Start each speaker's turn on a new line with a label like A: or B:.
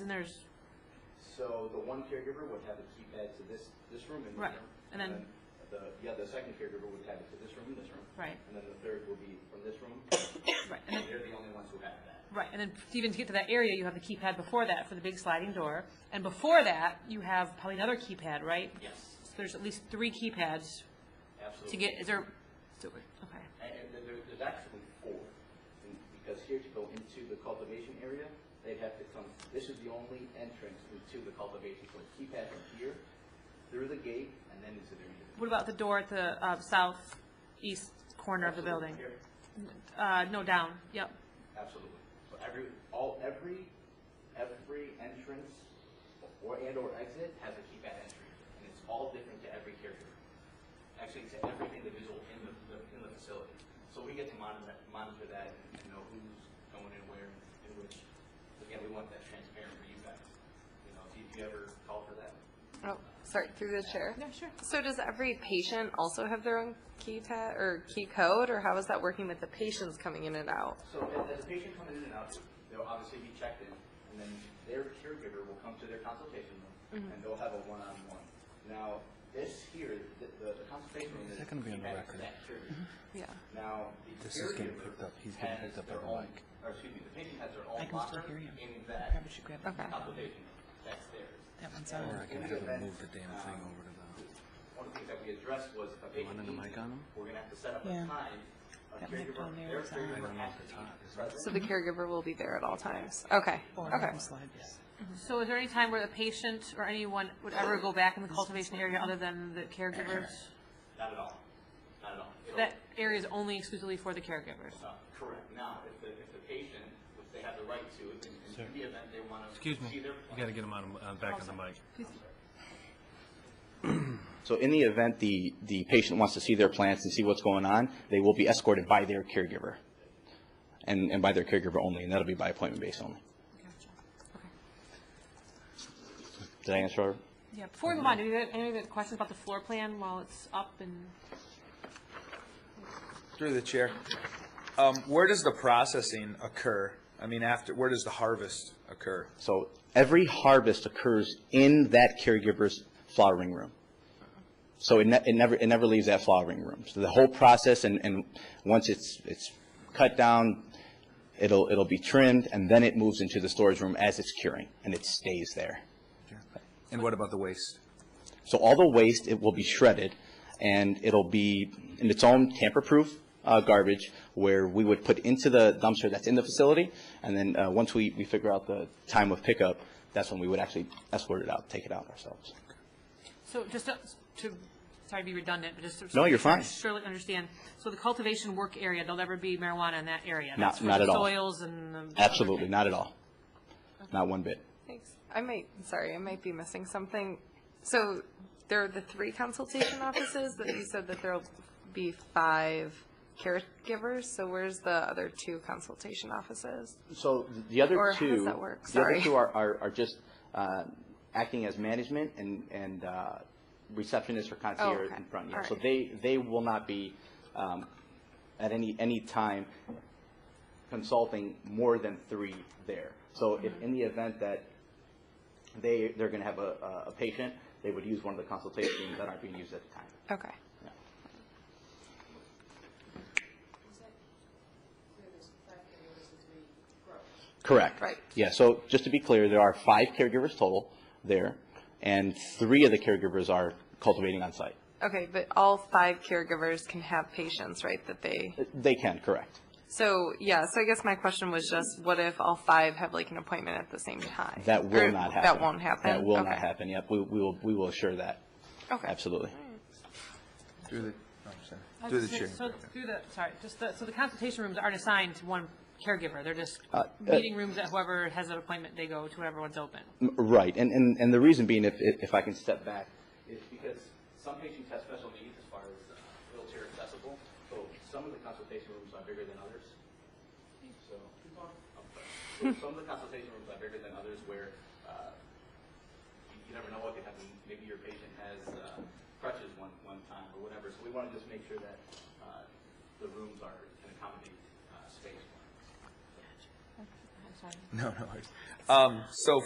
A: and there's,
B: So the one caregiver would have a keypad to this, this room and this
A: Right.
B: room.
A: And then-
B: The, yeah, the second caregiver would have it to this room and this room.
A: Right.
B: And then the third will be from this room.
A: right, and then,
B: They're the only ones who have that.
A: right, and then even to get to that area, you have the keypad before that for the big sliding door, and before that, you have probably another keypad, right?
B: Yes,
A: So there's at least three keypads
B: absolutely.
A: to get, is there, so- okay,
B: And, and there- there, there's actually four, And because here to go into the cultivation area, they'd have to come, this is the only entrance into the cultivation, so it's keypad from here, through the gate, and then into the area.
A: what about the door at the, uh, southeast corner of the building?
B: Here.
A: Uh, no, down, yep,
B: Absolutely. So every, all, every, every entrance or, and or exit has a keypad entry, and it's all different to every caregiver. Actually, to every individual in the, the- in the facility. So we get to monitor, monitor that and and know who's going in where and which. Again, we want that transparent for you guys. You know, if you- if you ever call for that.
C: Oh, sorry, through the chair.
A: yeah, sure.
C: So does every patient also have their own key ta, or key code, or how is that working with the patients coming in and out?
B: So as, as a patient comes in and out, they'll obviously be checked in, and then their caregiver will come to their consultation
D: Mm-hmm.
B: room, and they'll have a one-on-one. Now, this here, the, the the consultation room is.
E: that gonna be on the
B: keypad
E: record?
B: for that caregiver.
D: Mm-hmm.
C: Yeah.
B: Now, the
E: This is getting
B: caregiver
E: picked up. He's getting
B: has
E: picked up
B: their
E: by the
B: own-
E: mic.
B: Or excuse me, the patient has their own
D: I can still
B: locker
D: hear you.
B: in
D: I
B: that
D: probably should grab that.
C: Okay.
B: consultation room, that's theirs.
D: That one's
B: And
D: on.
E: Or I can
B: in
E: have
B: event,
E: him move the damn thing
B: um,
E: over to the,
B: one of the things that we addressed was if a patient
E: wanted a
B: needs it,
E: mic on 'em?
B: we're gonna have to set up a
D: Yeah.
B: time. A
D: That mic
B: caregiver,
D: on
B: their
D: there is on. I
B: caregiver
E: don't know
B: has
E: if
B: to be
E: it's on, is
B: present.
E: it?
C: So the caregiver will be there at all times? Okay,
D: Or I
C: okay.
D: can slide this.
A: So is there any time where the patient or anyone would ever go back in the cultivation area other than the caregivers?
B: Not at all. Not at all. It'll-
A: That area is only exclusively for the caregivers?
B: uh, Correct. Now, if the, if the patient, which they have the right to, if in in the event they want to.
E: Excuse me. You gotta get him on, on, back on the mic.
B: So in the event the, the patient wants to see their plants and see what's going on, they will be escorted by their caregiver. And, and by their caregiver only, and that'll be by appointment based only. Did I answer?
A: Yeah, before we move on, do you have any other questions about the floor plan while it's up and,
F: Through the chair. Um, where does the processing occur? I mean, after, where does the harvest occur?
B: So every harvest occurs in that caregiver's flowering room. So it, ne- it never, it never leaves that flowering room. So the whole process and, and once it's, it's cut down, it'll, it'll be trimmed and then it moves into the storage room as it's curing and it stays there.
F: And what about the waste?
B: So all the waste, it will be shredded, and it'll be in its own tamper-proof uh, garbage, where we would put into the dumpster that's in the facility, and then uh, once we, we figure out the time of pickup, that's when we would actually escort it out, take it out ourselves.
A: so just to- to, sorry to be redundant, but just to.
B: No, you're fine.
A: Surely understand, so the cultivation work area, there'll never be marijuana in that area?
B: Not-
A: That's for
B: not
A: the
B: at all.
A: Soils and. the-
B: Absolutely, not at all. Not one bit.
C: Thanks. I might, sorry, I might be missing something. So there are the three consultation offices, but you said that there'll be five caregivers, so where's the other two consultation offices?
B: So the other
C: Or how
B: two.
C: does that work?
B: The other
C: Sorry.
B: two are, are, are just uh, acting as management and, and uh, receptionist or concierge
C: Oh, okay.
B: in front. yeah.
C: All
B: So
C: right.
B: they, they will not be um, at any, any time consulting more than three there. So if,
C: Mm-hmm.
B: in the event that they, they're going to have a, a- a patient, they would use one of the consultation rooms that aren't being used at the time.
C: Okay.
B: Correct.
C: Right.
B: Yeah, so just to be clear, there are five caregivers total there, and three of the caregivers are cultivating on site.
C: Okay, but all five caregivers can have patients, right, that they?
B: They can, correct.
C: So, yeah, so I guess my question was just, what if all five have like an appointment at the same time?
B: That
C: Or
B: will not happen.
C: That won't happen?
B: That will not
C: Okay.
B: happen, yep, we, we will, we will assure that,
C: Okay.
B: absolutely.
F: Through the, oh, sorry.
A: I was
F: Through the
A: gonna
F: chair.
A: say, So through the, sorry, just the, so the consultation rooms aren't assigned to one caregiver, they're just
B: Uh, uh,
A: meeting rooms that whoever has an appointment, they go to whoever one's open.
B: M- Right, and, and, and the reason being, if, if if I can step back, is because some patients have special needs as far as uh, wheelchair accessible, so some of the consultation rooms are bigger than others. So, so some of the consultation rooms are bigger than others where, uh, you you never know what could happen. Maybe your patient has uh, crutches one, one time or whatever. So we want to just make sure that uh, the rooms are, can accommodate uh, space.
F: No, no worries. Um, so